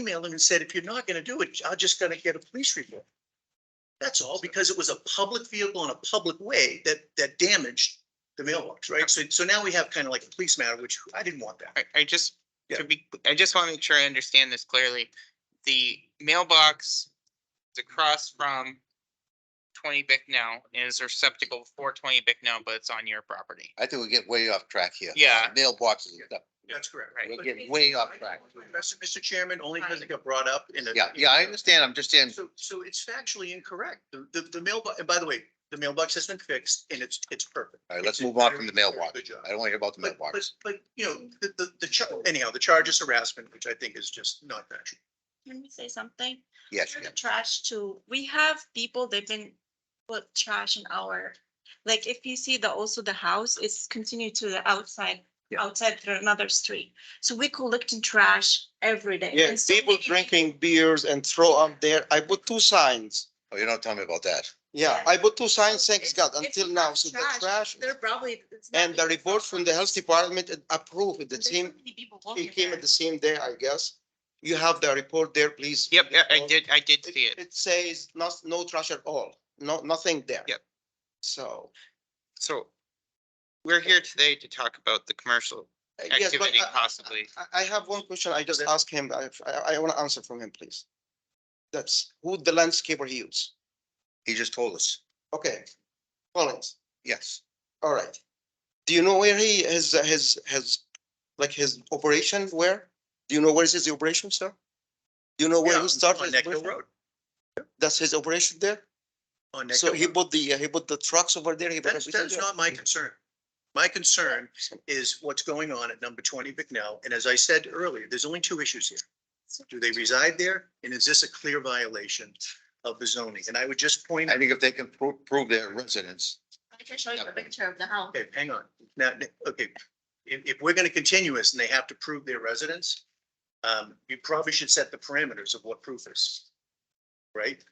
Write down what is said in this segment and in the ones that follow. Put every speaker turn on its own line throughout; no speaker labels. emailed him and said, if you're not gonna do it, I'm just gonna get a police report. That's all, because it was a public vehicle in a public way that, that damaged the mailbox, right? So, so now we have kind of like a police matter, which I didn't want that.
I, I just, to be, I just want to make sure I understand this clearly. The mailbox is across from twenty Bicknell and is a receptacle for twenty Bicknell, but it's on your property.
I think we get way off track here.
Yeah.
Mailboxes and stuff.
That's correct.
Right.
We're getting way off track.
Mr. Chairman, only because it got brought up in a.
Yeah, yeah, I understand. I'm just saying,
So, so it's factually incorrect. The, the, the mailbox, and by the way, the mailbox has been fixed and it's, it's perfect.
all right, let's
It's a
move on
very,
from the
very
mailbox.
Good job.
I don't want to hear about the
But, but,
mailbox.
but, you know, the, the, the, char- anyhow, the charge is harassment, which I think is just not factual.
Can we say something?
Yes,
For the Trash too. We have people, they've been put trash in our, like, if you see the, also the house is continued to the outside,
Yeah.
outside through another street. So we collecting trash every day.
Yeah,
And so
people
we-
drinking beers and throw up there. I put two signs.
oh, you don't tell me about that.
Yeah,
Yeah.
I put two signs,
It's-
thanks God,
it's
until
not
now, so the trash.
They're probably. it's not
And the
even-
report from the health department it approved it. the
There's so
same,
many people
it
walking
came
there.
at the same day, I guess. You have the report there, please.
Yep, yeah, I
Report.
did, I did see
It
it.
it says not, no trash at all, no, nothing there.
Yep.
So,
So we're here today to talk about the commercial
uh, yes, but
activity
I-
possibly.
I- I have one question. I just asked him, I, I- I want to answer from him, please. That's who the landscaper he use.
He just told us.
Okay. Collins.
Yes.
All right. Do you know where he, his, his, his, like his operation, where? Do you know where is his operation, sir? Do you know
Yeah,
where he
on-
started?
On
his
Nectar
operation?
Road,
That's his operation there?
on Nectar
So he
Road.
put the, he put the trucks over there? he put
That's,
everything
that's
there?
not my concern. My concern is what's going on at number twenty Bicknell. And as I said earlier, there's only two issues here. Do they reside there? And is this a clear violation of the zoning? And I would just point,
I think if they can pro- prove their residence,
I can show you a picture of the house.
okay, hang on. Now, okay, if, if we're gonna continue this and they have to prove their residence, um, you probably should set the parameters of what proof is. Right?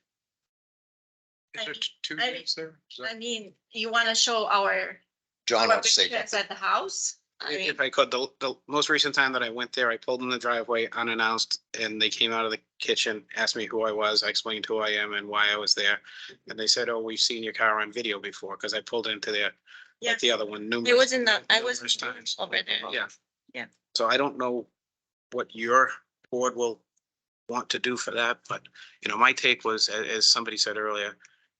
Is there
two
I- roofs
there?
I mean, you wanna show our,
John
our
would say,
pictures at the house? I
If
mean,
if I could, the, the most recent time that I went there, I pulled in the driveway unannounced and they came out of the kitchen, asked me who I was. I explained who I am and why I was there. And they said, oh, we've seen your car on video before because I pulled into their,
Yeah.
like the other one numerous.
it wasn't, that- I was
numerous times.
over there.
Yeah.
Yeah.
So I don't know what your board will want to do for that, but, you know, my take was, a- as somebody said earlier,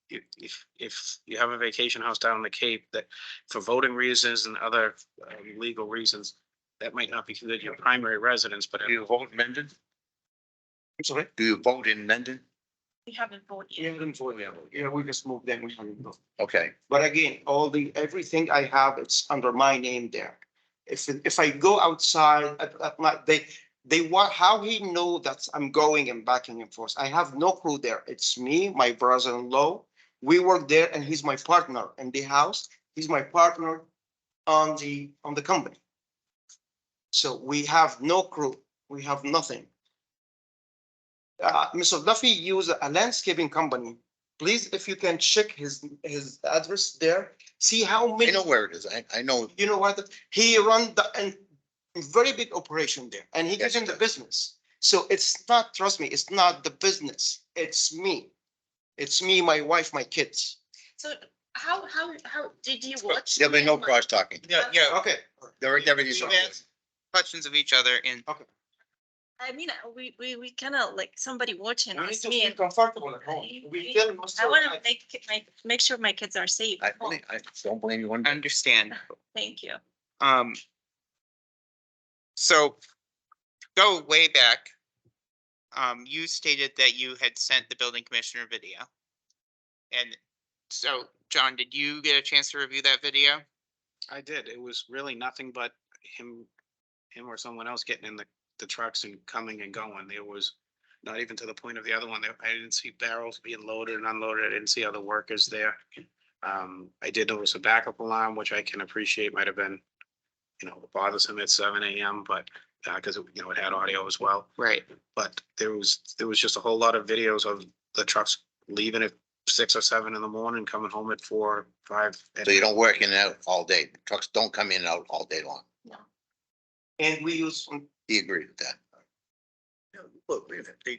if, if, if you have a vacation house down in the Cape that for voting reasons and other uh, legal reasons, that might not be considered your primary residence, but
do you vote in Mendon?
I'm sorry?
Do you vote in Mendon?
We haven't voted yet.
Yeah, we just moved them. we haven't moved.
Okay,
But again, all the, everything I have, it's under my name there. If, if I go outside at, at night, they, they want, how he know that I'm going and backing and forth? I have no crew there. It's me, my brother-in-law. We work there and he's my partner in the house. He's my partner on the, on the company. So we have no crew. We have nothing. Uh, Mr. Duffy used a landscaping company please, if you can check his, his address there, see how
I
many,
know where it is. I, I know.
you know what? He run the, and very big operation there and he
Yes,
gets
he
in the
does.
business. So it's not, trust me, it's not the business, it's me. It's me, my wife, my kids.
So how, how, how, did you watch?
There'll be no
that?
cross talking.
Yeah, yeah,
Okay.
There, everything's on.
We've asked Questions of each other and
I mean, we, we, we kind of like somebody watching us, me and
comfortable
at home. We
kill
I want to make, my make sure my kids are safe.
I,
at home.
I don't blame you one bit.
understand.
Thank you.
Um. So, go way back. Um, you stated that you had sent the building commissioner video. And so, John, did you get a chance to review that video?
I did. It was really nothing but him, him or someone else getting in the, the trucks and coming and going. There was not even to the point of the other one. There, I didn't see barrels being loaded and unloaded. I didn't see other workers there. Um, I did notice a backup alarm, which I can appreciate might have been, you know, bothersome at seven AM, but, uh, cause it, you know, it had audio as well.
Right.
But there was, there was just a whole lot of videos of the trucks leaving at six or seven in the morning, coming home at four, five. at
So you don't work in and out all day. Trucks don't come in and out all day long.
And we use,
He agreed with that.
whoa, wait a minute, they,